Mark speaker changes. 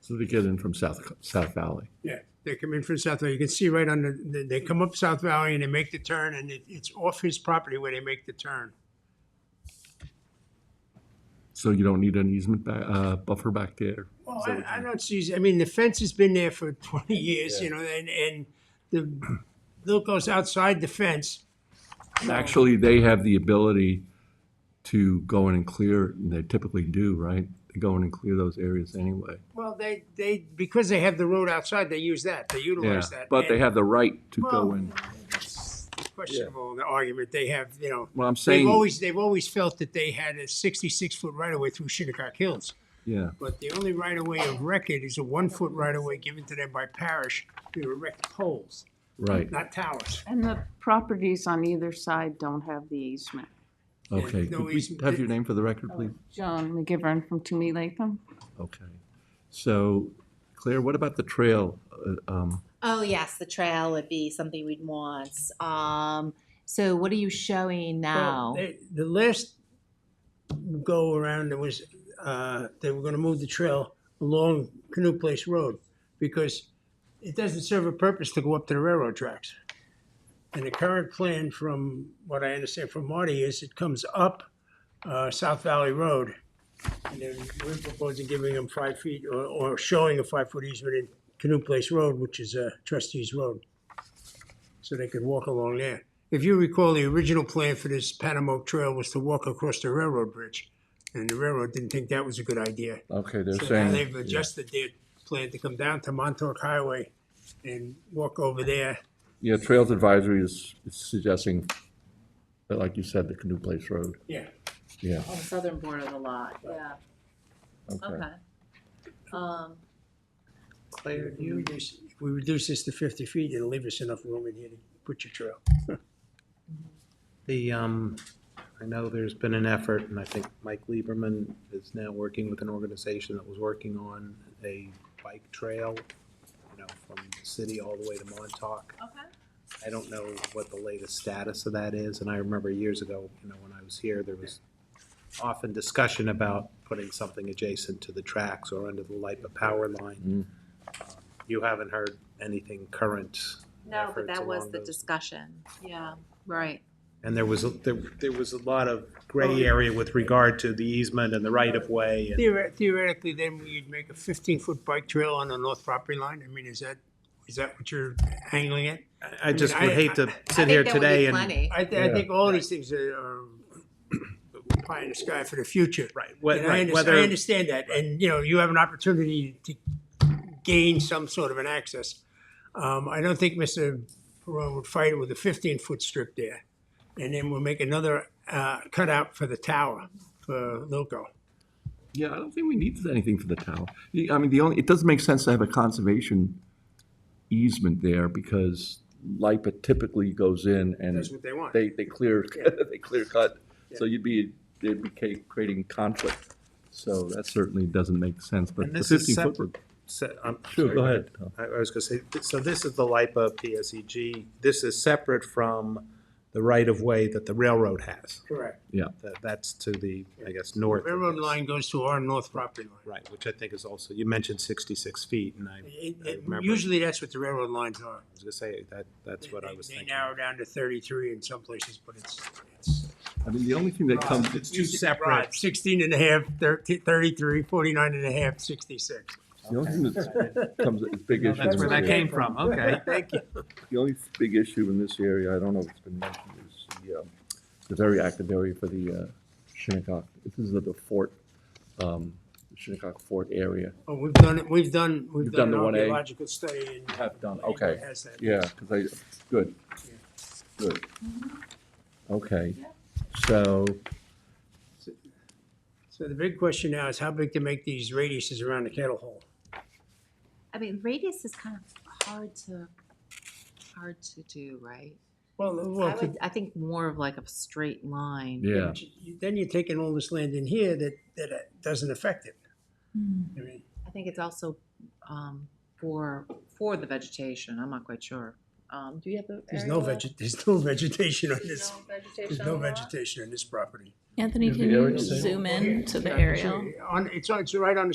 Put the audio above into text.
Speaker 1: So they get in from South, South Valley.
Speaker 2: Yeah, they come in from South Valley. You can see right on the- the, they come up South Valley and they make the turn and it, it's off his property where they make the turn.
Speaker 1: So you don't need an easement ba- uh, buffer back there.
Speaker 2: Well, I, I don't see, I mean, the fence has been there for twenty years, you know, and, and the, Bill goes outside the fence.
Speaker 1: Actually, they have the ability to go in and clear, and they typically do, right? They go in and clear those areas anyway.
Speaker 2: Well, they, they, because they have the road outside, they use that, they
Speaker 1: Yeah,
Speaker 2: utilize that.
Speaker 1: but they
Speaker 2: And
Speaker 1: have the right to go
Speaker 2: Well-
Speaker 1: in.
Speaker 2: it's Questionable, the argument they have, you know.
Speaker 1: Well, I'm saying,
Speaker 2: They've always, they've always felt that they had a sixty-six foot right of way through Shinnecock Hills.
Speaker 1: yeah,
Speaker 2: But the only right of way of record is a one-foot right of way given to them by parish to erect poles,
Speaker 1: right.
Speaker 2: not towers.
Speaker 3: And the properties on either side don't have the easement.
Speaker 1: Okay.
Speaker 2: no
Speaker 1: Could we
Speaker 2: easement.
Speaker 1: have your name for the record, please?
Speaker 3: Joan McGivern from Toomey Latham.
Speaker 1: Okay. So Claire, what about the trail? Uh, um,
Speaker 4: Oh yes, the trail would be something we'd want. Um, so what are you showing now?
Speaker 2: Well, they- The last go around, there was, uh, they were gonna move the trail along Canoe Place Road because it doesn't serve a purpose to go up to the railroad tracks. And the current plan from what I understand from Marty is it comes up, uh, South Valley Road. And then we're proposing giving them five feet or, or showing a five-foot easement in Canoe Place Road, which is a trustee's road. So they could walk along there. If you recall, the original plan for this Panamoke Trail was to walk across the railroad bridge, and the railroad didn't think that was a good idea.
Speaker 1: Okay, they're
Speaker 2: So now
Speaker 1: saying.
Speaker 2: they've adjusted their plan to come down to Montauk Highway and walk over there.
Speaker 1: Yeah, Trails Advisory is is suggesting, that, like you said, the Canoe Place Road.
Speaker 2: Yeah.
Speaker 1: Yeah,
Speaker 4: On the southern border of the lot. Yeah.
Speaker 1: okay.
Speaker 4: Um,
Speaker 2: Claire, do you reduce? If we reduce this to fifty feet, it'll leave us enough room in here to put your trail.
Speaker 5: The, um, I know there's been an effort, and I think Mike Lieberman is now working with an organization that was working on a bike trail, you know, from the city all the way to Montauk.
Speaker 4: okay.
Speaker 5: I don't know what the latest status of that is, and I remember years ago, you know, when I was here, there was often discussion about putting something adjacent to the tracks or under the LIPA power line. You haven't heard anything current,
Speaker 4: No, but
Speaker 5: Efforts
Speaker 4: that was
Speaker 5: along
Speaker 4: the
Speaker 5: those-
Speaker 4: discussion. Yeah. Right.
Speaker 5: and there was, a- there, there was a lot of gray area with regard to the easement and the right-of-way and
Speaker 2: Theoret- Theoretically, then we'd make a fifteen-foot bike trail on the north property line. I mean, is that, is that what you're angling at?
Speaker 5: I- I just would
Speaker 2: I-
Speaker 5: hate to
Speaker 4: I
Speaker 5: sit
Speaker 4: think
Speaker 5: here
Speaker 4: that would be
Speaker 5: today and,
Speaker 4: plenty.
Speaker 2: I, th- I think all these things are, are pie in the sky for the future.
Speaker 5: right, wh-
Speaker 2: And I,
Speaker 5: right,
Speaker 2: under- I
Speaker 5: whether,
Speaker 2: understand that, and, you know, you have an opportunity to gain some sort of an access. Um, I don't think Mr. Perone would fight it with a fifteen-foot strip there. And then we'll make another, uh, cutout for the tower, for Loco.
Speaker 1: Yeah, I don't think we need anything for the town. The- I mean, the only, it doesn't make sense to have a conservation easement there because LIPA typically goes in and
Speaker 2: That's what they want.
Speaker 1: they, they clear, they clear cut. So you'd be, they'd be ca- creating conflict. So that certainly doesn't make sense, but
Speaker 5: And
Speaker 1: the
Speaker 5: this is
Speaker 1: fifteen foot.
Speaker 5: separate-
Speaker 1: would-
Speaker 5: so- I'm
Speaker 1: Sure,
Speaker 5: sorry,
Speaker 1: go ahead.
Speaker 5: I I was gonna say, th- so this is the LIPA PSEG, E this is separate from the right-of-way that the railroad has.
Speaker 2: Correct.
Speaker 5: That- That's to the, I guess, north. of
Speaker 2: Railroad
Speaker 5: this.
Speaker 2: line goes to our north property line.
Speaker 5: Right, which I think is also, you mentioned sixty-six feet, and I
Speaker 2: It-
Speaker 5: I
Speaker 2: it-
Speaker 5: remember.
Speaker 2: Usually that's what the railroad lines are.
Speaker 5: was gonna say, that, that's what I
Speaker 2: They-
Speaker 5: was
Speaker 2: They
Speaker 5: thinking.
Speaker 2: narrow down to thirty-three in some places, but it's, it's.
Speaker 1: I mean, the only thing that comes,
Speaker 5: It's two
Speaker 2: Right,
Speaker 5: separate.
Speaker 2: 16 and a half, 13 33, 49 and a half, 66.
Speaker 1: the only thing that comes, as big issue.
Speaker 5: That's where
Speaker 1: in
Speaker 5: that
Speaker 1: this area-
Speaker 5: came from, okay.
Speaker 2: Thank you.
Speaker 1: The only big issue in this area, I don't know if it's been mentioned, is the, um, the very active area for the uh, Shinnecock. This is the- the fort, um, Shinnecock Fort area.
Speaker 2: Oh, We've done, it. we've done, we've
Speaker 1: You've
Speaker 2: done
Speaker 1: done
Speaker 2: an
Speaker 1: the 1A?
Speaker 2: archaeological study and.
Speaker 1: Have done,
Speaker 2: Anybody
Speaker 1: okay.
Speaker 2: has that.
Speaker 1: Yeah, because I, good, good. Okay, so,
Speaker 2: So the big question now is how big to make these radiuses around the kettle hole?
Speaker 4: I mean, radius is kind of hard to hard to do, right?
Speaker 2: Well,
Speaker 4: I
Speaker 2: well,
Speaker 4: would. I think more of like a straight line.
Speaker 1: yeah,
Speaker 2: then you're taking all this land in here that, that uh, doesn't affect it.
Speaker 4: Hmm.
Speaker 2: I mean,
Speaker 4: I think it's also um, for for the vegetation. I'm not quite sure. Um, do you have the?
Speaker 2: There's
Speaker 4: area
Speaker 2: no
Speaker 4: lot?
Speaker 2: veg, there's no vegetation on
Speaker 4: There's
Speaker 2: this,
Speaker 4: no vegetation.
Speaker 2: there's no
Speaker 4: on the lot?
Speaker 2: vegetation on this property.
Speaker 6: Anthony,
Speaker 1: Is the
Speaker 6: can
Speaker 1: area
Speaker 6: you
Speaker 1: the same?
Speaker 6: zoom in to the
Speaker 2: Yeah,
Speaker 6: aerial?
Speaker 2: On, it's, on- it's right on the